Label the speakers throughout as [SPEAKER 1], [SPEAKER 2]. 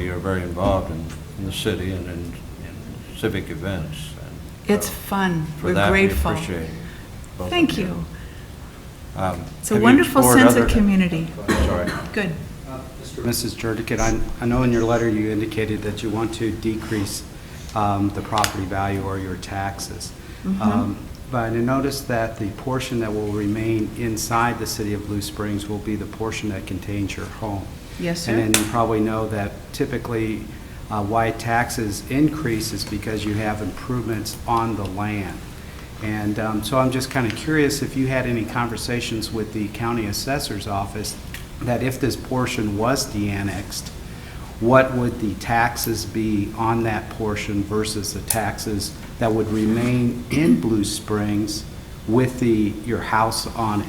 [SPEAKER 1] you're very involved in, in the city and in in civic events. and, uh,
[SPEAKER 2] It's fun.
[SPEAKER 1] for
[SPEAKER 2] We're
[SPEAKER 1] that, we
[SPEAKER 2] grateful.
[SPEAKER 1] appreciate both of
[SPEAKER 2] Thank you.
[SPEAKER 1] Um,
[SPEAKER 2] It's a
[SPEAKER 1] have you
[SPEAKER 2] wonderful
[SPEAKER 1] explored
[SPEAKER 2] sense of
[SPEAKER 1] other-
[SPEAKER 2] community.
[SPEAKER 1] I'm Sorry.
[SPEAKER 2] Good.
[SPEAKER 3] Mr. Mrs. Jurdick, I I know in your letter you indicated that you want to decrease um, the property value or your taxes. Um, But I noticed that the portion that will remain inside the city of Blue Springs will be the portion that contains your home.
[SPEAKER 2] Yes, sir.
[SPEAKER 3] And then you probably know that typically uh, why taxes increase is because you have improvements on the land. And um, so I'm just kind of curious if you had any conversations with the county assessor's office that if this portion was de-annexed, what would the taxes be on that portion versus the taxes that would remain in Blue Springs with the, your house on it?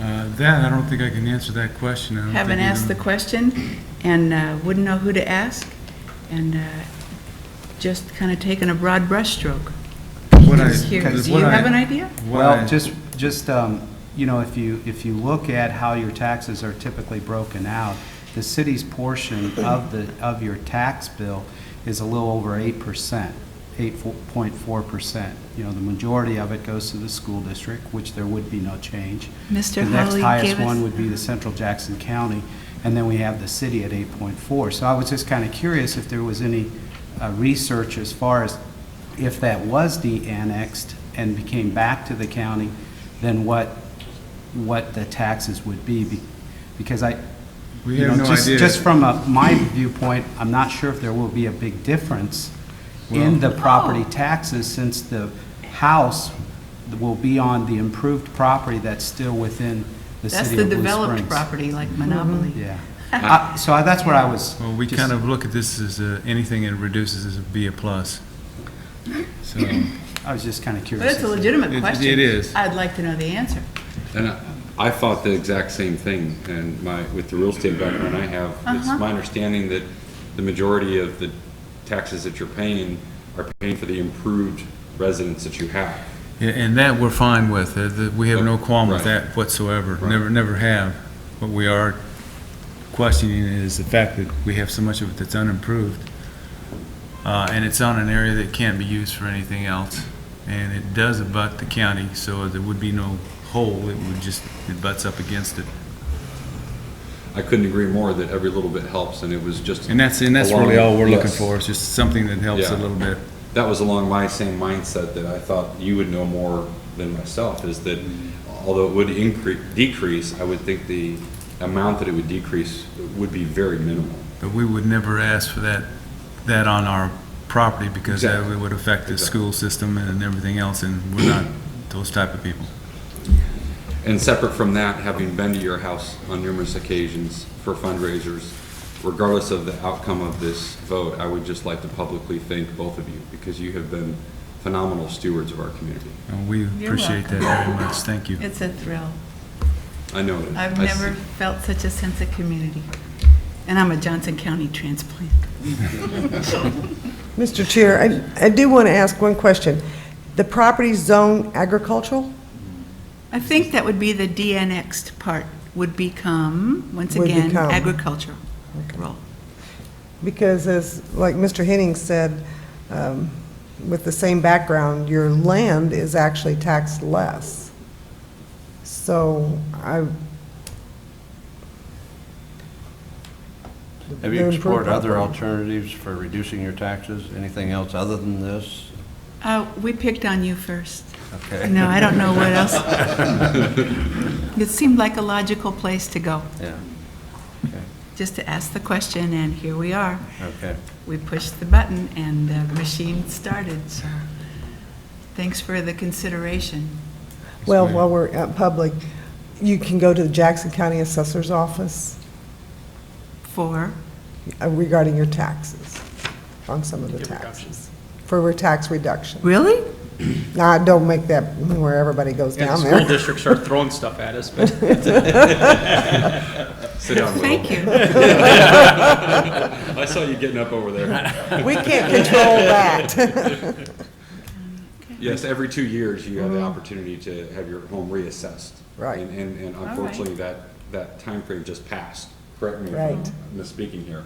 [SPEAKER 4] Uh, That, I don't think I can answer that question. I don't
[SPEAKER 2] Haven't
[SPEAKER 4] think we
[SPEAKER 2] asked the
[SPEAKER 4] know.
[SPEAKER 2] question and uh, wouldn't know who to ask and uh, just kind of taken a broad brushstroke.
[SPEAKER 4] What I-
[SPEAKER 2] Just here.
[SPEAKER 4] what
[SPEAKER 2] Do you
[SPEAKER 4] I-
[SPEAKER 2] have an idea?
[SPEAKER 4] what I-
[SPEAKER 3] Well, just, just, um, you know, if you, if you look at how your taxes are typically broken out, the city's portion of the, of your tax bill is a little over eight percent, eight point four percent. You know, the majority of it goes to the school district, which there would be no change.
[SPEAKER 2] Mr.
[SPEAKER 3] The next
[SPEAKER 2] Hawley
[SPEAKER 3] highest
[SPEAKER 2] gave us-
[SPEAKER 3] one would be the central Jackson County, and then we have the city at eight point four. So I was just kind of curious if there was any uh, research as far as if that was de-annexed and became back to the county, then what, what the taxes would be, be- because I,
[SPEAKER 4] We
[SPEAKER 3] you
[SPEAKER 4] have
[SPEAKER 3] know,
[SPEAKER 4] no
[SPEAKER 3] just,
[SPEAKER 4] idea.
[SPEAKER 3] just from a- my viewpoint, I'm not sure if there will be a big difference in the property
[SPEAKER 2] Oh.
[SPEAKER 3] taxes, since the house will be on the improved property that's still within the
[SPEAKER 2] That's
[SPEAKER 3] city
[SPEAKER 2] the
[SPEAKER 3] of Blue Springs.
[SPEAKER 2] developed property, like Monopoly.
[SPEAKER 3] Yeah. Uh, So I- that's what I was.
[SPEAKER 4] Well, we
[SPEAKER 3] just-
[SPEAKER 4] kind of look at this as a- anything that reduces is be a plus. So,
[SPEAKER 3] I was just kind of
[SPEAKER 2] But
[SPEAKER 3] curious.
[SPEAKER 2] it's a legitimate
[SPEAKER 4] It-
[SPEAKER 2] question.
[SPEAKER 4] it is.
[SPEAKER 2] I'd like to know the answer.
[SPEAKER 5] And I- I thought the exact same thing, and my, with the real estate background I have, it's
[SPEAKER 2] Uh-huh.
[SPEAKER 5] my understanding that the majority of the taxes that you're paying are paying for the improved residence that you have.
[SPEAKER 4] yeah, and that we're fine with. Uh, the- We have no qualm with
[SPEAKER 5] Right.
[SPEAKER 4] that whatsoever.
[SPEAKER 5] Right.
[SPEAKER 4] Never, never have. What we are questioning is the fact that we have so much of it that's unimproved. Uh, And it's on an area that can't be used for anything else. And it does abut the county, so there would be no hole. It would just, it butts up against it.
[SPEAKER 5] I couldn't agree more that every little bit helps, and it was just.
[SPEAKER 4] And that's, and that's
[SPEAKER 5] along-
[SPEAKER 4] really all we're looking
[SPEAKER 5] yes.
[SPEAKER 4] for, is just something that helps a
[SPEAKER 5] Yeah.
[SPEAKER 4] little bit.
[SPEAKER 5] That was along my same mindset that I thought you would know more than myself, is that although it would increase, decrease, I would think the amount that it would decrease would be very minimal.
[SPEAKER 4] But we would never ask for that, that on our property because that
[SPEAKER 5] Exactly.
[SPEAKER 4] would affect the
[SPEAKER 5] Exactly.
[SPEAKER 4] school system and everything else, and we're not those type of people.
[SPEAKER 5] And separate from that, having been to your house on numerous occasions for fundraisers, regardless of the outcome of this vote, I would just like to publicly thank both of you because you have been phenomenal stewards of our community.
[SPEAKER 4] And we
[SPEAKER 2] You're
[SPEAKER 4] appreciate that very much. Thank you.
[SPEAKER 2] It's a thrill.
[SPEAKER 5] I know it is.
[SPEAKER 2] I've
[SPEAKER 5] I see-
[SPEAKER 2] never felt such a sense of community. And I'm a Johnson County transplant.
[SPEAKER 6] Mr. Chair, I, I do want to ask one question. The property zone agricultural
[SPEAKER 2] I think that would be the de-annexed part, would become, once
[SPEAKER 6] Would
[SPEAKER 2] again,
[SPEAKER 6] become.
[SPEAKER 2] agricultural. Rural.
[SPEAKER 6] because as, like Mr. Henning said, um, with the same background, your land is actually taxed less. So I,
[SPEAKER 1] Have
[SPEAKER 6] They're
[SPEAKER 1] you
[SPEAKER 6] improved
[SPEAKER 1] explored other
[SPEAKER 6] property.
[SPEAKER 1] alternatives for reducing your taxes? Anything else other than this?
[SPEAKER 2] Uh, We picked on you first.
[SPEAKER 1] Okay.
[SPEAKER 2] No, I don't know what else. It seemed like a logical place to go,
[SPEAKER 1] Yeah,
[SPEAKER 2] just to ask the question, and here we are.
[SPEAKER 1] okay.
[SPEAKER 2] We pushed the button, and the machine started, so thanks for the consideration.
[SPEAKER 6] well, while we're at public, you can go to the Jackson County Assessor's Office
[SPEAKER 2] For,
[SPEAKER 6] uh, regarding your taxes, on some of the taxes, for a tax reduction.
[SPEAKER 2] really?
[SPEAKER 6] Now, I don't make that where everybody goes
[SPEAKER 7] Yeah, the
[SPEAKER 6] down there.
[SPEAKER 7] school districts are throwing stuff at us, but
[SPEAKER 5] Sit down, Will.
[SPEAKER 2] Thank you.
[SPEAKER 5] I saw you getting up over there.
[SPEAKER 6] We can't control that.
[SPEAKER 5] Yes, every two years, you
[SPEAKER 2] Mm-hmm.
[SPEAKER 5] have the opportunity to have your home reassessed.
[SPEAKER 6] Right.
[SPEAKER 5] And- And, and
[SPEAKER 2] right.
[SPEAKER 5] unfortunately, that, that timeframe just passed. correct me if
[SPEAKER 6] Right.
[SPEAKER 5] I'm misspeaking here.